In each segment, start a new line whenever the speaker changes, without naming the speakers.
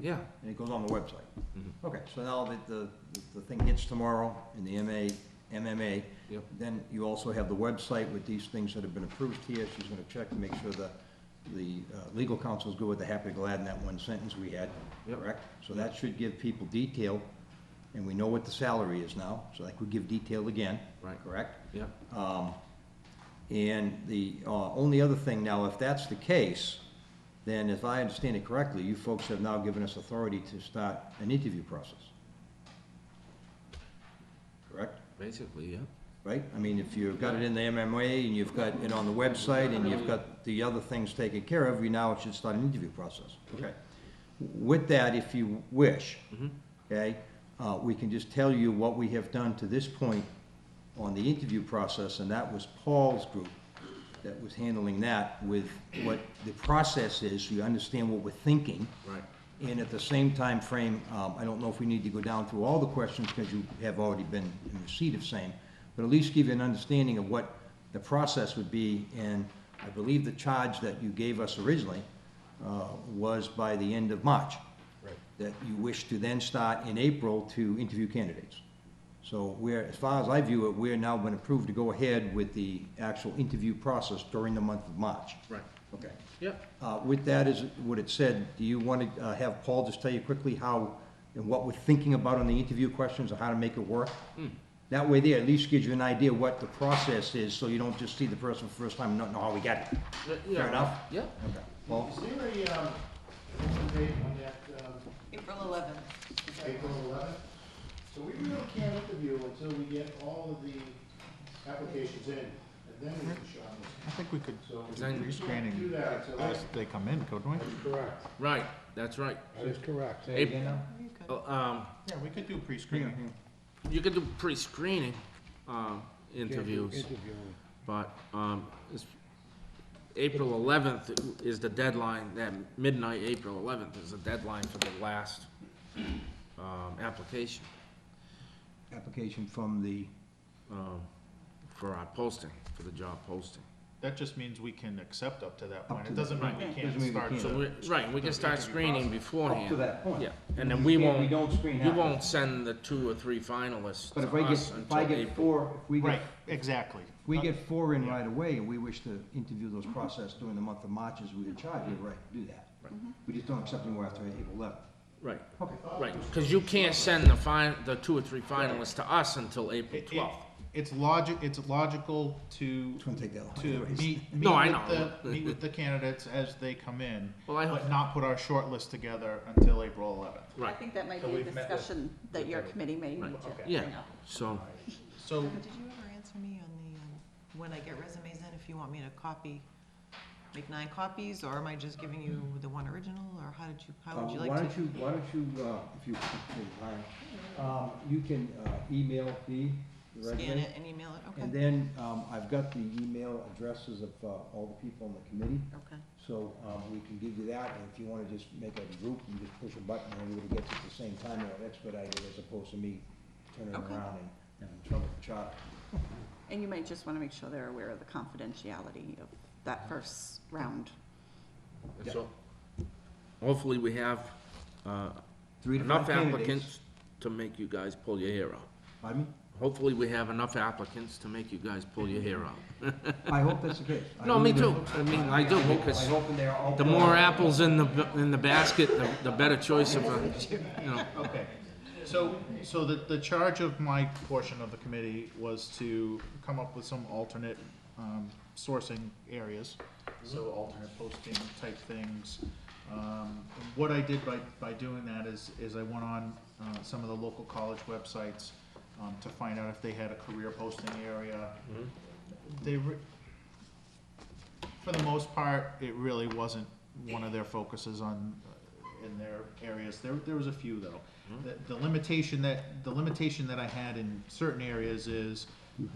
Yeah, Mm-hmm.
and it goes on the website. Okay, so now that the, the thing hits tomorrow in the MA, MMA,
Yep.
then you also have the website with these things that have been approved here. She's gonna check to make sure the, the uh, legal counsel's good with the happy glad in that one sentence we had,
Yep.
correct? So that should give people detail, and we know what the salary is now, so that could give detail again.
Right.
Correct?
yeah,
Um, And the uh, only other thing, now, if that's the case, then if I understand it correctly, you folks have now given us authority to start an interview process. Correct?
basically, yeah.
Right? I mean, if you've got it in the MMA and you've got it on the website and you've got the other things taken care of, you now should start an interview process. Okay. With that, if you wish, okay, uh, we can just tell you what we have done to this point on the interview process, and that was Paul's group that was handling that with what the process is, so you understand what we're thinking.
Right.
And at the same time frame, um, I don't know if we need to go down through all the questions, because you have already been in receipt of same, but at least give you an understanding of what the process would be, and I believe the charge that you gave us originally uh, was by the end of March.
Right.
That you wish to then start in April to interview candidates. So we're, as far as I view it, we're now been approved to go ahead with the actual interview process during the month of March.
Right,
Okay.
yeah.
Uh, With that is what it said, do you want to uh, have Paul just tell you quickly how, and what we're thinking about on the interview questions, or how to make it work?
Hmm.
That way there, at least gives you an idea what the process is, so you don't just see the person for the first time and not know how we got it.
Yeah, Uh, yeah,
Fair enough?
Yeah,
Okay. Paul?
Is there a, um, what's the date on that, um,
April eleventh.
April eleventh? So we really can't interview until we get all of the applications in, and then we can shop
I think we could,
So
if we're
do
scanning
that, so
as they come in, couldn't we?
Correct.
right, that's right.
That is correct.
Ap- Oh, Um,
Yeah, we could do pre-screening.
you could do pre-screening, um, interviews, but, um, it's, April eleventh is the deadline, that midnight, April eleventh is the deadline for the last, um, application,
Application from the,
um, for our posting, for the job posting.
That just means we can accept up to that
Up
point.
to
It doesn't mean we
Doesn't
can't
mean we
start.
can't.
So
the-
we, right, we can start screening beforehand.
up to that point.
Yeah, and then we won't,
We don't screen
you
applicants.
won't send the two or three finalists
But
to
if I get,
us
if I
until
get
April.
four, if we
Right,
get,
exactly.
if we get four in right away, and we wish to interview those process during the month of March as we were charged, you're Mm-hmm. right, do that.
Mm-hmm.
We just don't accept anywhere after April 11th.
Right,
Okay.
right, cause you can't send the fin, the two or three finalists to us until April
It- it-
twelfth.
It's logic, it's logical to,
It's gonna take that long.
to
anyways.
meet, meet
No, I
with the,
know.
meet with the candidates as they come in,
Well, I
but
hope,
not put our short list together until April eleventh.
I
right,
think that might
So
be a
we've met with-
discussion that your committee may
Right.
need to
Okay.
bring
Yeah.
up.
so,
So
Did you ever answer me on the, um, when I get resumes in, if you want me to copy, make nine copies, or am I just giving you the one original, or how did you, how would you
Uh,
like to?
Why don't you, why don't you, uh, if you, if you, um, you can uh, email me the
Scan
resume.
it and email it,
And
okay,
then, um, I've got the email addresses of, uh, all the people on the committee,
okay.
so, um, we can give you that, and if you wanna just make a group, you just push a button, and everybody gets it at the same time, and it'll expedite it, as opposed to me turning
Okay.
around and having trouble with the chart.
And you might just wanna make sure they're aware of the confidentiality of that first round.
and so, hopefully we have, uh,
Three to five
enough
candidates.
applicants to make you guys pull your hair out.
Pardon me?
Hopefully we have enough applicants to make you guys pull your hair out.
I hope that's the case. I
No, me
really
too,
do.
I mean, I do,
hope- I
because
hope they're all.
the more apples in the, in the basket, the, the better choice of, a- you know,
Okay, so, so the, the charge of my portion of the committee was to come up with some alternate, um, sourcing areas.
Mm-hmm.
So alternate posting type things. Um, what I did by, by doing that is, is I went on, uh, some of the local college websites, um, to find out if they had a career posting area. They, re- for the most part, it really wasn't one of their focuses on, uh, in their areas. There, there was a few though. The- The limitation that, the limitation that I had in certain areas is,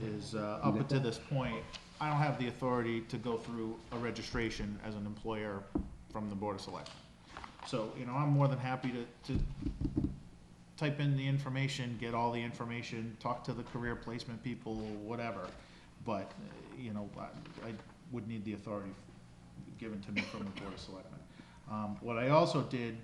is uh, up to this point, I don't have the authority to go through a registration as an employer from the Board of Selectmen. So, you know, I'm more than happy to, to type in the information, get all the information, talk to the career placement people, whatever. But, uh, you know, I, I would need the authority given to me from the Board of Selectmen. Um, what I also did